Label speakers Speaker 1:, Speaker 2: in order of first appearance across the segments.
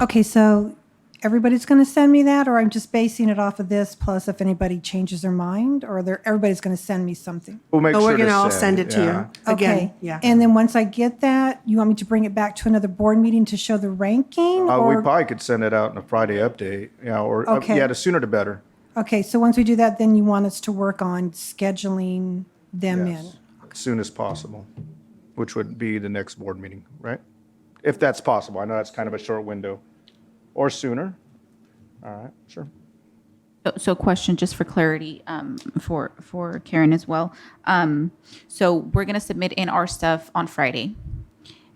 Speaker 1: Okay, so everybody's going to send me that, or I'm just basing it off of this, plus if anybody changes their mind, or they're, everybody's going to send me something?
Speaker 2: We'll make
Speaker 3: Oh,
Speaker 2: sure
Speaker 3: we're going to all send it
Speaker 2: yeah.
Speaker 3: to you. Again,
Speaker 1: Okay.
Speaker 3: yeah.
Speaker 1: And then once I get that, you want me to bring it back to another board meeting to show the ranking?
Speaker 2: Uh, we
Speaker 1: or-
Speaker 2: probably could send it out in a Friday update, yeah, or, uh,
Speaker 1: Okay.
Speaker 2: yeah, the sooner the better.
Speaker 1: Okay, so once we do that, then you want us to work on scheduling them in?
Speaker 2: Yes, as soon as possible, which would be the next board meeting, right? If that's possible, I know that's kind of a short window, or sooner. All right, sure.
Speaker 4: So- So question, just for clarity, um, for, for Karen as well. Um, So we're going to submit in our stuff on Friday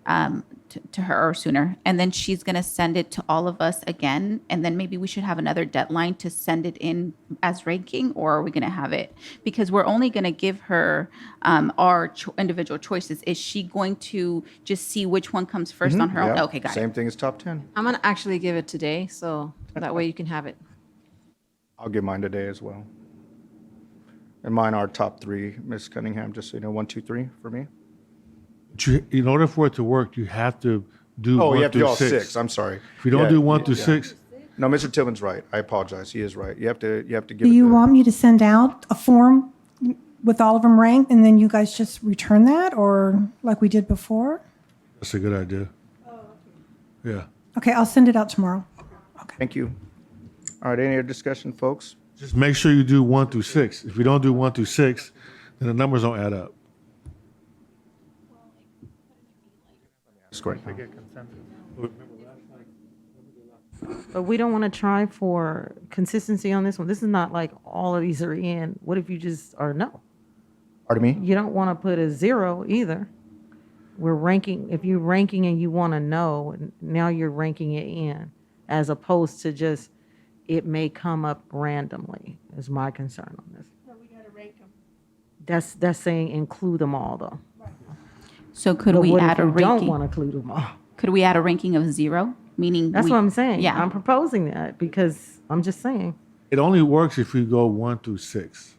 Speaker 4: um, to- to her or sooner. And then she's going to send it to all of us again. And then maybe we should have another deadline to send it in as ranking, or are we going to have it? Because we're only going to give her um, our cho- individual choices. Is she going to just see which one comes first on her own?
Speaker 2: Mm-hmm. Yeah,
Speaker 4: Oh, Okay, got it.
Speaker 2: Same thing as top 10.
Speaker 5: I'm gonna actually give it today, so that way you can have it.
Speaker 2: I'll give mine today as well. And mine are top three, Miss Cunningham, just so you know, one, two, three for me.
Speaker 6: But you- In order for it to work, you have to do
Speaker 2: Oh, you
Speaker 6: one
Speaker 2: have to do
Speaker 6: through
Speaker 2: all
Speaker 6: six.
Speaker 2: six, I'm sorry.
Speaker 6: If you don't
Speaker 2: Yeah,
Speaker 6: do one
Speaker 2: yeah,
Speaker 6: through
Speaker 2: yeah.
Speaker 6: six,
Speaker 2: No, Mr. Tillman's right. I apologize. He is right. You have to, you have to give
Speaker 1: Do
Speaker 2: it
Speaker 1: you
Speaker 2: the-
Speaker 1: want me to send out a form with all of them ranked, and then you guys just return that, or like we did before?
Speaker 6: that's a good idea. Yeah.
Speaker 1: Okay, I'll send it out tomorrow.
Speaker 2: Thank you. All right, any other discussion, folks?
Speaker 6: Just make sure you do one through six. If you don't do one through six, then the numbers don't add up.
Speaker 2: That's great.
Speaker 7: But we don't want to try for consistency on this one. This is not like all of these are in. What if you just are no?
Speaker 2: Pardon me?
Speaker 7: You don't want to put a zero either. We're ranking, if you're ranking and you want to know, now you're ranking it in as opposed to just it may come up randomly, is my concern on this. we got to rank them. That's, that's saying include them all though.
Speaker 4: So could
Speaker 7: But
Speaker 4: we
Speaker 7: what if
Speaker 4: add a
Speaker 7: you Don't
Speaker 4: ranking?
Speaker 7: want to include them all.
Speaker 4: Could we add a ranking of zero? Meaning.
Speaker 7: That's
Speaker 4: we-
Speaker 7: what I'm saying.
Speaker 4: Yeah.
Speaker 7: I'm proposing that because I'm just saying.
Speaker 6: It only works if you go one through six.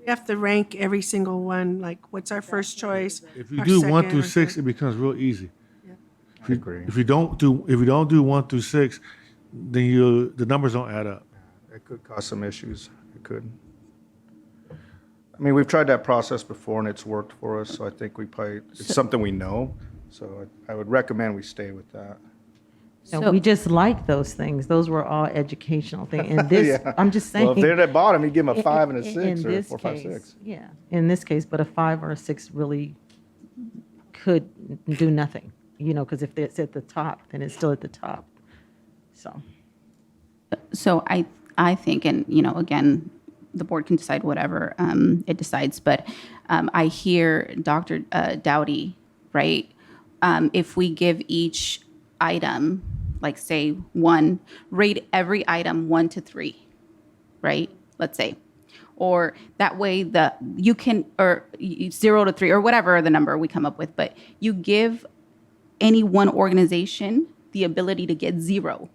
Speaker 8: We have to rank every single one, like what's our first choice?
Speaker 6: If you
Speaker 8: our
Speaker 6: do one
Speaker 8: second,
Speaker 6: through
Speaker 8: our
Speaker 6: six,
Speaker 8: third.
Speaker 6: it becomes real easy. If you,
Speaker 2: agree.
Speaker 6: if you don't do if you don't do one through six, then you the numbers don't add up.
Speaker 2: It could cause some issues. It could. I mean, we've tried that process before and it's worked for us, so I think we probably, it's something we know. So I I would recommend we stay with that.
Speaker 4: So-
Speaker 7: No, we just like those things. Those were all educational things. And this,
Speaker 2: Yeah.
Speaker 7: I'm just saying.
Speaker 2: Well, if they're at the bottom, you give them a
Speaker 7: in-
Speaker 2: five and a
Speaker 7: in-
Speaker 2: six
Speaker 7: in
Speaker 2: or
Speaker 7: this
Speaker 2: four, five,
Speaker 7: case,
Speaker 2: six.
Speaker 7: Yeah, in this case, but a five or a six really could do nothing, you know, because if it's at the top, then it's still at the top. So,
Speaker 4: So I, I think, and you know, again, the board can decide whatever um, it decides, but um, I hear Dr. Uh, Dowdy, right? Um, if we give each item, like say one, rate every item one to three, right? Let's say, or that way the you can or y- zero to three or whatever the number we come up with, but you give any one organization the ability to get zero,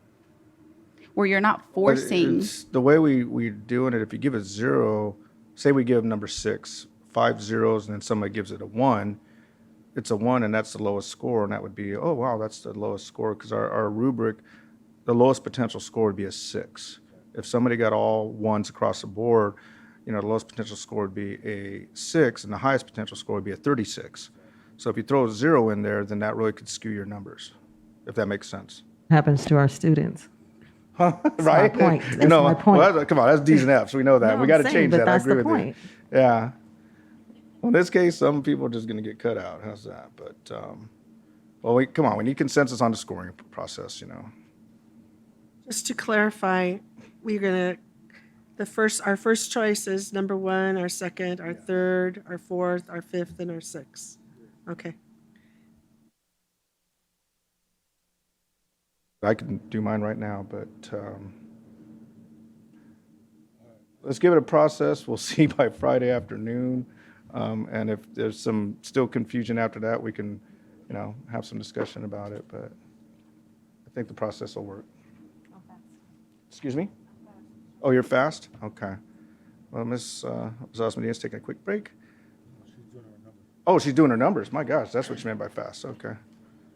Speaker 4: where you're not
Speaker 2: But
Speaker 4: forcing.
Speaker 2: it's- The way we, we're doing it, if you give a zero, say we give number six, five zeros, and then somebody gives it a one, it's a one and that's the lowest score, and that would be, oh, wow, that's the lowest score, because our, our rubric, the lowest potential score would be a six. If somebody got all ones across the board, you know, the lowest potential score would be a six, and the highest potential score would be a thirty-six. So if you throw a zero in there, then that really could skew your numbers, if that makes sense.
Speaker 7: happens to our students.
Speaker 2: right?
Speaker 7: point. That's
Speaker 2: no,
Speaker 7: my point.
Speaker 2: well, that's- come on, that's D's and F's. We know that.
Speaker 7: No,
Speaker 2: we
Speaker 7: I'm
Speaker 2: got to
Speaker 7: saying,
Speaker 2: change
Speaker 7: but
Speaker 2: that. I
Speaker 7: that's
Speaker 2: agree
Speaker 7: the
Speaker 2: with
Speaker 7: point.
Speaker 2: you. Yeah. Well, in this case, some people are just going to get cut out. How's that? But um, well, we, come on, we need consensus on the scoring p- process. You know,
Speaker 8: Just to clarify, we're gonna, the first, our first choice is number one, our second, our third, our fourth, our fifth, and our sixth. Okay.
Speaker 2: I can do mine right now, but um, let's give it a process. We'll see by Friday afternoon, um, and if there's some still confusion after that, we can, you know, have some discussion about it. But I think the process will work. Excuse me? Oh, you're fast? Okay. Well, Ms. uh, Ms. Osmondia's Oh, taking a quick break. Oh, she's doing her numbers. My gosh, that's what you meant by fast. Okay.